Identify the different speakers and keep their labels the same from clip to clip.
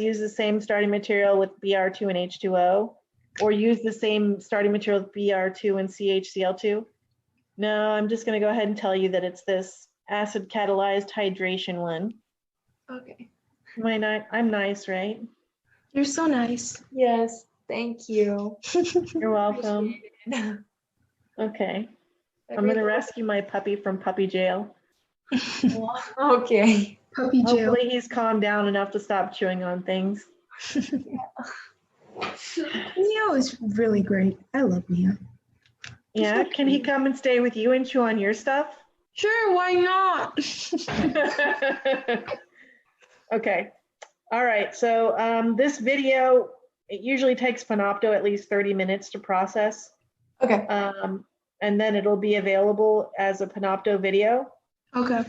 Speaker 1: use the same starting material with BR2 and H2O? Or use the same starting material with BR2 and CHCl2? No, I'm just gonna go ahead and tell you that it's this acid catalyzed hydration one.
Speaker 2: Okay.
Speaker 1: Am I ni- I'm nice, right?
Speaker 2: You're so nice.
Speaker 3: Yes, thank you.
Speaker 1: You're welcome.
Speaker 3: I'm
Speaker 1: Okay, I'm gonna rescue my puppy from puppy jail.
Speaker 3: Okay.
Speaker 2: Puppy jail.
Speaker 1: Hopefully he's calmed down enough to stop chewing on things.
Speaker 2: Neo is really great. I love Neo. He's
Speaker 1: Yeah,
Speaker 2: okay.
Speaker 1: can he come and stay with you and chew on your stuff?
Speaker 2: Sure, why not?
Speaker 1: Okay, all right, so um, this video, it usually takes Panopto at least 30 minutes to process.
Speaker 3: Okay.
Speaker 1: um, And then it'll be available as a Panopto video.
Speaker 2: okay.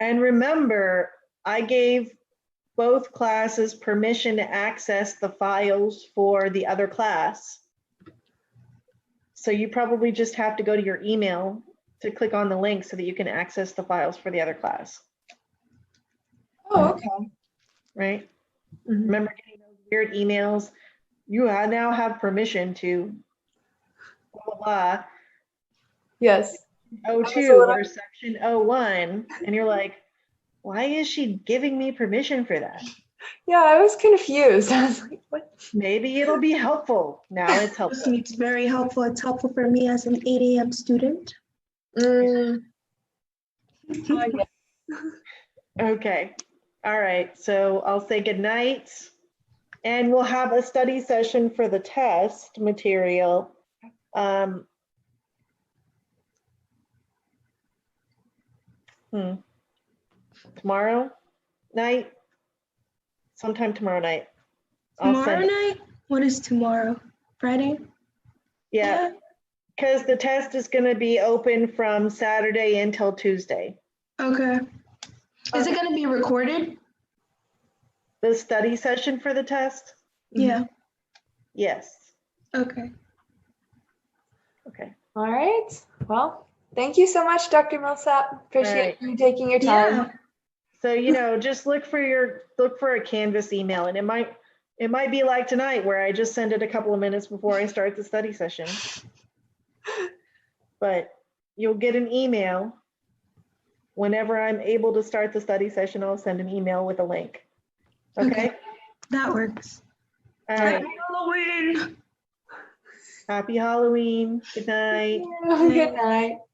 Speaker 1: And remember, I gave both classes permission to access the files for the other class. So you probably just have to go to your email to click on the link so that you can access the files for the other class,
Speaker 3: Oh, okay.
Speaker 1: right?
Speaker 2: Mhm.
Speaker 1: Remember getting those weird emails? You ha- now have permission to blah, blah, blah.
Speaker 3: Yes.
Speaker 1: O
Speaker 3: was a
Speaker 1: two
Speaker 3: little-
Speaker 1: or section O one, and you're like, why is she giving me permission for that?
Speaker 3: Yeah, I was confused. I was like, what?
Speaker 1: Maybe it'll be helpful. Now it's helpful.
Speaker 2: It's very helpful. It's helpful for me as an 8 a.m. student.
Speaker 3: Oh,
Speaker 1: Okay. All right. So I'll say goodnight. And we'll have a study session for the test material. Um, hmm, Tomorrow night? Sometime tomorrow night. I'll send
Speaker 2: Tomorrow
Speaker 1: it.
Speaker 2: night? What is tomorrow? Friday?
Speaker 1: Yeah, because the test is going to be open from Saturday until Tuesday.
Speaker 2: Okay. Is it going to be recorded?
Speaker 1: The study session for the test?
Speaker 2: Yeah.
Speaker 1: Yes.
Speaker 2: Okay.
Speaker 1: Okay.
Speaker 3: All right. Well, thank you so much, Dr. Millsap. Appreciate
Speaker 1: right.
Speaker 3: you taking your
Speaker 2: Yeah.
Speaker 3: time.
Speaker 1: So, you know, just look for your, look for a Canvas email and it might, it might be like tonight where I just send it a couple of minutes before I start the study session. But you'll get an email. Whenever I'm able to start the study session, I'll send an email with a link. Okay?
Speaker 2: That works.
Speaker 1: All right.
Speaker 2: Happy Halloween.
Speaker 1: Happy Halloween. Good night.
Speaker 3: Good night.